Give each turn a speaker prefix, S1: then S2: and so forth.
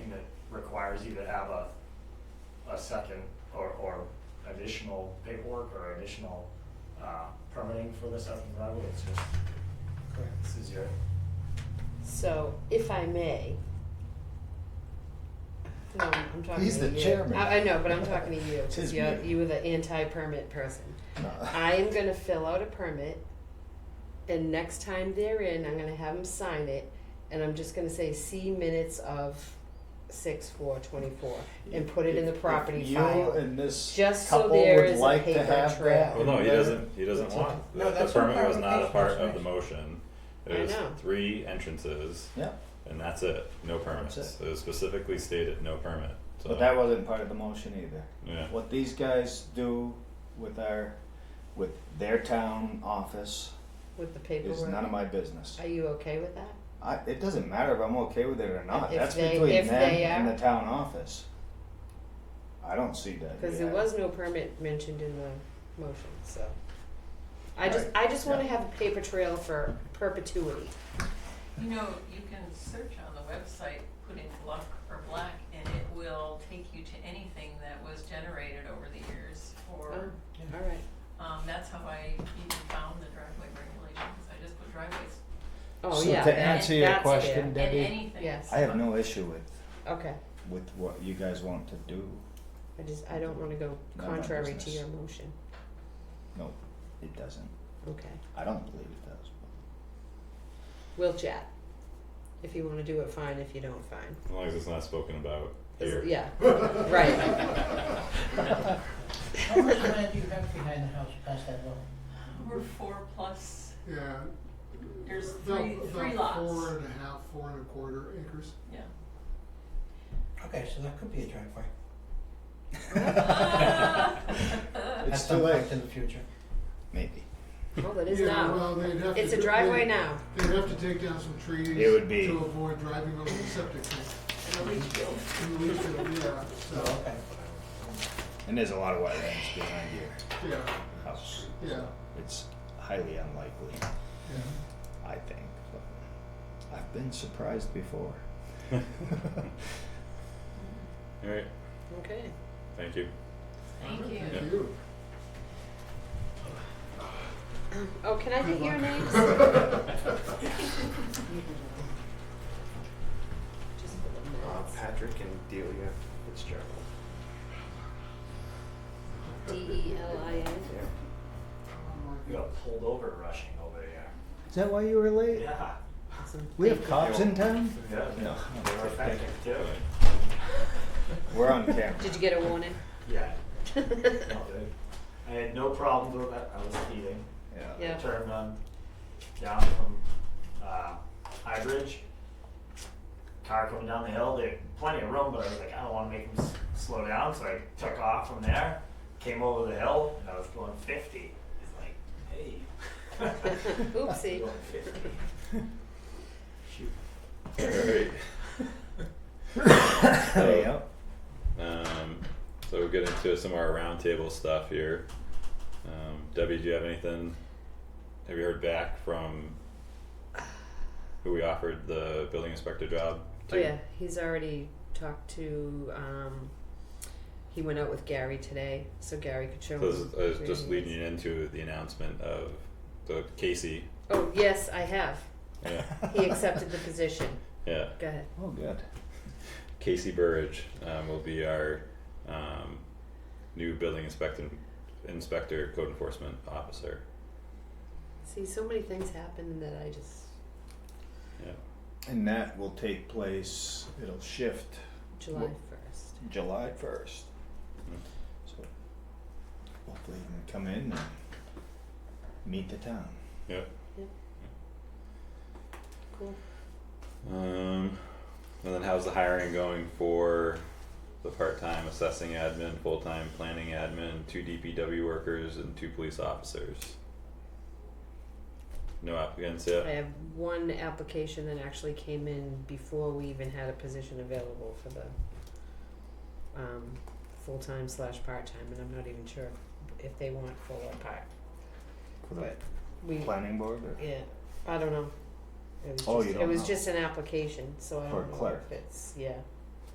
S1: requires you to have a, a second or, or additional paperwork or additional, uh, permitting for the second driveway, it's just,
S2: Correct.
S1: this is your,
S3: So, if I may. No, I'm talking
S4: He's
S3: to
S4: the
S3: you.
S4: chairman.
S3: I, I know, but I'm talking to you.
S4: It's his
S3: 'cause you,
S4: meeting.
S3: you were the anti-permit person.
S4: No.
S3: I am gonna fill out a permit, and next time they're in, I'm gonna have them sign it, and I'm just gonna say, see minutes of six, four, twenty-four, and put it in the
S4: If- if
S3: property file.
S4: You and this
S3: Just so
S4: couple
S3: there
S4: would
S3: is a
S4: like to
S3: paper
S4: have
S3: trail.
S4: that.
S5: Well, no, he
S4: then
S5: doesn't, he doesn't
S4: it's
S5: want,
S4: a-
S5: the,
S2: No,
S5: the
S2: that's what
S5: permit was not a part
S2: clarification
S5: of the
S2: is.
S5: motion.
S3: I
S5: It was
S3: know.
S5: three entrances
S4: Yeah,
S5: and that's it, no permits.
S4: That's
S5: It was specifically stated, no permit, so.
S4: but that wasn't part of the motion either.
S5: Yeah,
S4: What these guys do with our, with their town office
S3: With the
S4: is
S3: paperwork.
S4: none of my business.
S3: Are you okay with that?
S4: I, it doesn't matter if I'm okay with it or not,
S3: If
S4: that's
S3: they-
S4: between
S3: if
S4: them
S3: they
S4: and
S3: are.
S4: the town office. I don't see that
S3: Cause there
S4: yet.
S3: was no permit mentioned in the motion, so. I just, I just wanna
S4: yeah.
S3: have a paper trail for perpetuity.
S6: You know, you can search on the website, put in Gluck or Black, and it will take you to anything that was generated over the years for,
S3: Oh, Alright,
S6: um, that's how I even found the driveway regulations, I just put driveways
S3: oh
S4: So
S3: yeah,
S4: to
S3: that-
S4: answer your
S3: that's
S4: question,
S6: and
S4: Debbie,
S6: anything.
S3: Yes.
S4: I have no issue with,
S3: there. Okay,
S4: with what you guys want to do.
S3: I just, I don't wanna go
S4: Not my
S3: contrary to
S4: business.
S3: your motion,
S4: No, it doesn't.
S3: okay,
S4: I don't believe it does.
S3: we'll chat. If you wanna do it, fine, if you don't, fine,
S5: as long as it's not spoken about
S3: Is-
S5: here.
S3: yeah, right,
S2: How much land do you have behind the house past that wall?
S6: We're four plus,
S7: Yeah.
S6: There's
S7: about-
S6: three- three
S7: about
S6: lots.
S7: Four and a half, four and a quarter acres.
S6: yeah.
S2: Okay, so that could be a driveway.
S6: Ah.
S4: It's too
S2: At some
S4: late.
S2: point in the future.
S4: Maybe.
S3: well, it is
S7: Yeah,
S3: now,
S7: well, they'd have
S3: it's
S7: to-
S3: a driveway
S7: they'd-
S3: now,
S7: They'd have to take down some trees.
S4: It would be-
S7: To avoid driving over the septic tank.
S6: And a leach field.
S7: And we could- yeah,
S2: Oh,
S7: so,
S2: okay.
S4: And there's a lot of wetlands behind your
S7: yeah,
S4: house.
S7: yeah,
S4: It's highly unlikely,
S7: yeah.
S4: I think. But I've been surprised before.
S5: Alright,
S3: okay.
S5: thank you.
S6: Thank you.
S7: Thank you.
S3: Oh, can I
S7: Good
S3: get your
S7: luck.
S3: names? Just for the
S8: Uh,
S3: minutes.
S8: Patrick and Delia Fitzgerald.
S3: D E L I N.
S8: Yeah.
S1: you got pulled over rushing over here.
S4: Is that why you were late?
S1: Yeah.
S3: Awesome.
S4: We
S3: Thank
S4: have
S3: you.
S4: cops in town?
S1: Yeah.
S4: No.
S1: They were effective too.
S4: We're on camera.
S3: Did you get a warning?
S1: Yeah, I'll do. I had no problem with that, I was speeding.
S4: Yeah.
S3: Yeah.
S1: Turned on down from uh, High Bridge. Car coming down the hill, there plenty of room, but I was like, I don't want to make him s- slow down, so I took off from there. Came over the hill, and I was going 50. He's like, hey.
S3: Oopsie.
S1: Going 50. Shoot.
S5: Alright,
S4: Hey, yep.
S5: um, so we'll get into some of our roundtable stuff here. Um, Debbie, do you have anything? Have you heard back from who we offered the building inspector job
S3: Oh
S5: to?
S3: yeah, he's already talked to. Um, he went out with Gary today, so Gary could show
S5: So this
S3: him.
S5: is, I was
S3: where
S5: just
S3: he
S5: leading
S3: is.
S5: you into the announcement of the Casey.
S3: Oh yes, I have.
S5: Yeah,
S3: He accepted the position.
S5: yeah.
S3: Go ahead.
S4: Oh, good.
S5: Casey Burridge um, will be our um, new building inspector, inspector, code enforcement officer.
S3: See, so many things happen that I just
S5: Yeah.
S4: And that will take place, it'll shift
S3: July
S4: Well-
S3: first.
S4: July 1st.
S5: Mhm.
S4: So hopefully you can come in and meet the town.
S5: Yeah.
S3: Cool.
S5: Um, and then how's the hiring going for the part-time assessing admin, full-time planning admin, two DPW workers, and two police officers? No applicants yet.
S3: I have one application that actually came in before we even had a position available for the um, full time slash part time, and I'm not even sure if they want full or part.
S4: For
S3: But we
S4: planning board or?
S3: Yeah, I don't know. It was
S4: Oh,
S3: just,
S4: you
S3: it
S4: don't
S3: was
S4: know.
S3: just an application, so I
S4: For
S3: don't know
S4: clerk.
S3: if it's yeah.